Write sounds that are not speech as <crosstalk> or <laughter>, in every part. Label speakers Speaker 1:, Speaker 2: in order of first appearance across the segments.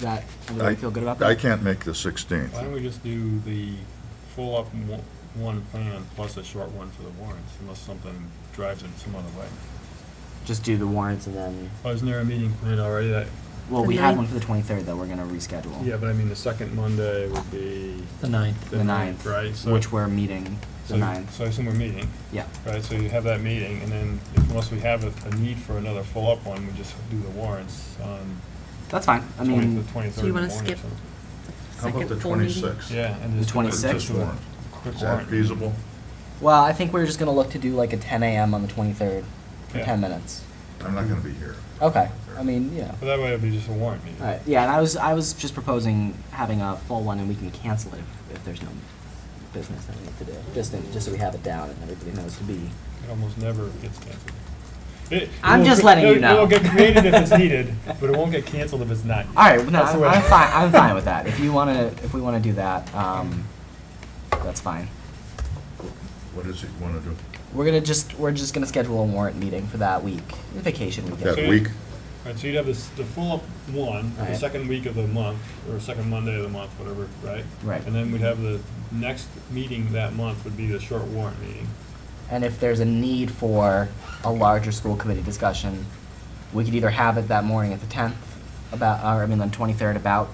Speaker 1: That, everybody feel good about
Speaker 2: I
Speaker 1: that?
Speaker 2: can't make the
Speaker 3: Why
Speaker 2: 16th.
Speaker 3: don't we just do the full up in one- one plan plus a short one for the warrants, unless something drives it some other way.
Speaker 1: Just do the warrants and then,
Speaker 3: Oh, isn't there a meeting planned already that,
Speaker 1: well, we
Speaker 4: The
Speaker 1: had
Speaker 4: ninth.
Speaker 1: one for the twenty-third that we're gonna reschedule.
Speaker 3: yeah, but I mean, the second Monday would be
Speaker 5: The ninth.
Speaker 3: the ninth, right? So-
Speaker 1: Which we're meeting
Speaker 3: so-
Speaker 1: the ninth,
Speaker 3: So I assume we're meeting,
Speaker 1: yeah.
Speaker 3: right? So you have that meeting, and then if- unless we have a, a need for another full up one, we just do the warrants on
Speaker 1: That's fine, I
Speaker 3: twenty, the
Speaker 1: mean,
Speaker 3: twenty-third
Speaker 4: So you
Speaker 3: in the
Speaker 4: wanna
Speaker 3: morning.
Speaker 4: skip
Speaker 3: so-
Speaker 2: How about
Speaker 4: Second
Speaker 2: the
Speaker 4: full meeting.
Speaker 2: 26th?
Speaker 3: Yeah, and
Speaker 1: The
Speaker 3: just. do a-
Speaker 1: 26th?
Speaker 3: just do a
Speaker 2: Is
Speaker 3: Quick
Speaker 2: that
Speaker 3: warrant.
Speaker 2: feasible?
Speaker 1: well, I think we're just gonna look to do like a ten AM on the twenty-third for
Speaker 3: Yeah.
Speaker 1: ten minutes.
Speaker 2: I'm not going to be here.
Speaker 1: Okay, I mean, you know.
Speaker 3: But that way it'd be just a warrant meeting.
Speaker 1: Alright, yeah, and I was, I was just proposing having a full one and we can cancel it if, if there's no business that we need to do. Just, in- just so we have it down and everybody knows to be.
Speaker 3: It almost never gets canceled. It- it
Speaker 1: I'm
Speaker 3: will
Speaker 1: just
Speaker 3: get-
Speaker 1: letting you
Speaker 3: it- It
Speaker 1: know.
Speaker 3: will get created
Speaker 1: <laughs>
Speaker 3: if it's needed, but it won't get canceled if it's not. used.
Speaker 1: Alright, no,
Speaker 3: That's the
Speaker 1: I'm,
Speaker 3: way-
Speaker 1: I'm fine,
Speaker 3: <laughs>
Speaker 1: I'm fine with that. If you wanna, if we wanna do that, um, that's fine.
Speaker 2: What is it you want to do?
Speaker 1: We're gonna just, we're just gonna schedule a warrant meeting for that week, vacation
Speaker 2: That
Speaker 1: weekend.
Speaker 3: So-
Speaker 2: week?
Speaker 3: Right, so you'd have this, the full one, the
Speaker 1: Right.
Speaker 3: second week of the month, or second Monday of the month, whatever, right?
Speaker 1: Right.
Speaker 3: And then we'd have the next meeting that month would be the short warrant meeting.
Speaker 1: And if there's a need for a larger school committee discussion, we could either have it that morning at the tenth about, or I mean, the twenty-third about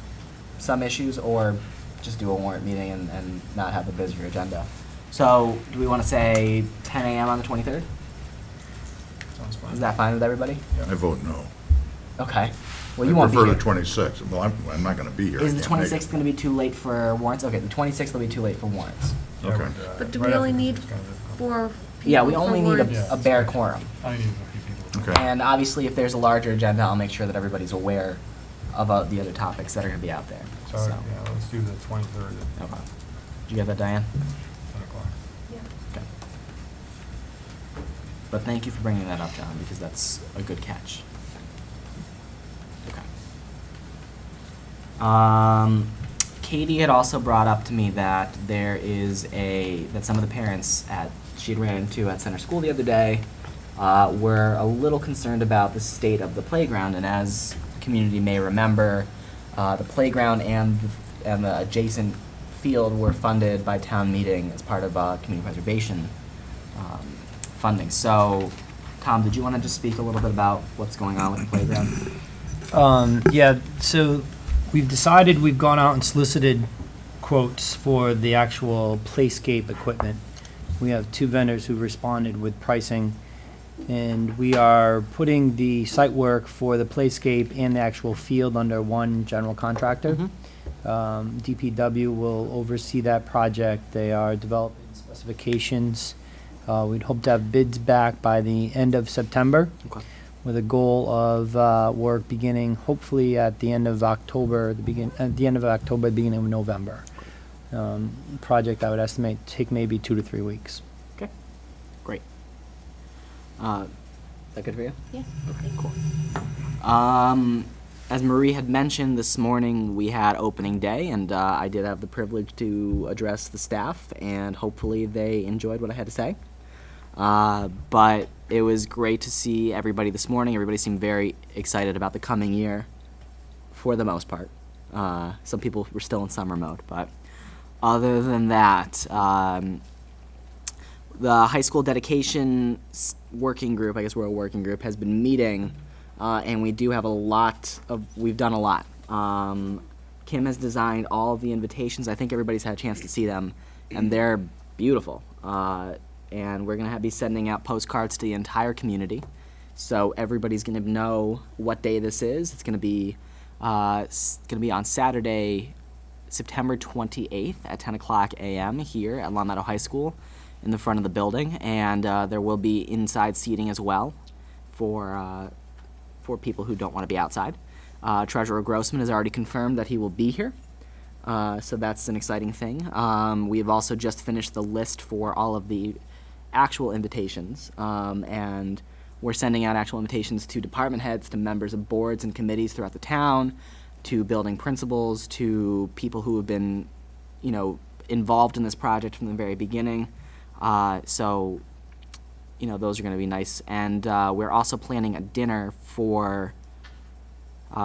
Speaker 1: some issues, or just do a warrant meeting and, and not have a busier agenda. So, do we wanna say ten AM on the twenty-third?
Speaker 3: Sounds fine.
Speaker 1: Is that fine with everybody?
Speaker 2: I vote no.
Speaker 1: Okay. Well, you won't be
Speaker 2: I
Speaker 1: here.
Speaker 2: prefer the 26th. Well, I'm, I'm not going to be here. I
Speaker 1: Is the
Speaker 2: can't make it.
Speaker 1: twenty-sixth gonna be too late for warrants? Okay, the twenty-sixth will be too late for warrants.
Speaker 2: Okay.
Speaker 4: But do we only need four people?
Speaker 1: Yeah, we only need
Speaker 3: warrants.
Speaker 1: a, a bare quorum.
Speaker 3: I need a few people.
Speaker 2: Okay.
Speaker 1: And obviously, if there's a larger agenda, I'll make sure that everybody's aware of uh, the other topics that are gonna be out there,
Speaker 3: So,
Speaker 1: so.
Speaker 3: yeah, let's do the twenty-third at
Speaker 1: Okay. Did you get that, Diane?
Speaker 3: ten o'clock.
Speaker 1: Okay. But thank you for bringing that up, John, because that's a good catch. Okay. Um, Katie had also brought up to me that there is a, that some of the parents at, she had ran into at center school the other day, uh, were a little concerned about the state of the playground, and as the community may remember, uh, the playground and, the- and the adjacent field were funded by town meeting as part of, uh, community preservation, um, funding. So, Tom, did you wanna just speak a little bit about what's going on with the playground?
Speaker 5: Um, yeah, so we've decided, we've gone out and solicited quotes for the actual playscape equipment. We have two vendors who responded with pricing, and we are putting the site work for the playscape and the actual field under one general contractor. Um, DPW will oversee that project. They are developing specifications. Uh, we'd hope to have bids back by the end of September
Speaker 1: Okay.
Speaker 5: with a goal of uh, work beginning hopefully at the end of October, the begin, at the end of October, beginning of November. Um, Project I would estimate take maybe two to three weeks.
Speaker 1: Okay, great. Uh, is that good for you?
Speaker 4: Yeah.
Speaker 1: Okay, cool. Um, as Marie had mentioned this morning, we had opening day, and uh, I did have the privilege to address the staff, and hopefully they enjoyed what I had to say. Uh, but it was great to see everybody this morning. Everybody seemed very excited about the coming year, for the most part. Uh, some people were still in summer mode, but other than that, um, the high school dedication s- working group, I guess we're a working group, has been meeting, uh, and we do have a lot of, we've done a lot. Um, Kim has designed all of the invitations. I think everybody's had a chance to see them, and they're beautiful. Uh, and we're going to be sending out postcards to the entire community. So everybody's going to know what day this is. It's going to be uh, s- going to be on Saturday, September 28th at 10 o'clock a.m. here at Long Meadow High School in the front of the building, and uh, there will be inside seating as well for uh, for people who don't want to be outside. Uh, Treasurer Grossman has already confirmed that he will be here, uh, so that's an exciting thing. Um, we have also just finished the list for all of the actual invitations, um, and we're sending out actual invitations to department heads, to members of boards and committees throughout the town, to building principals, to people who have been, you know, involved in this project from the very beginning. Uh, so, you know, those are going to be nice. And uh, we're also planning a dinner for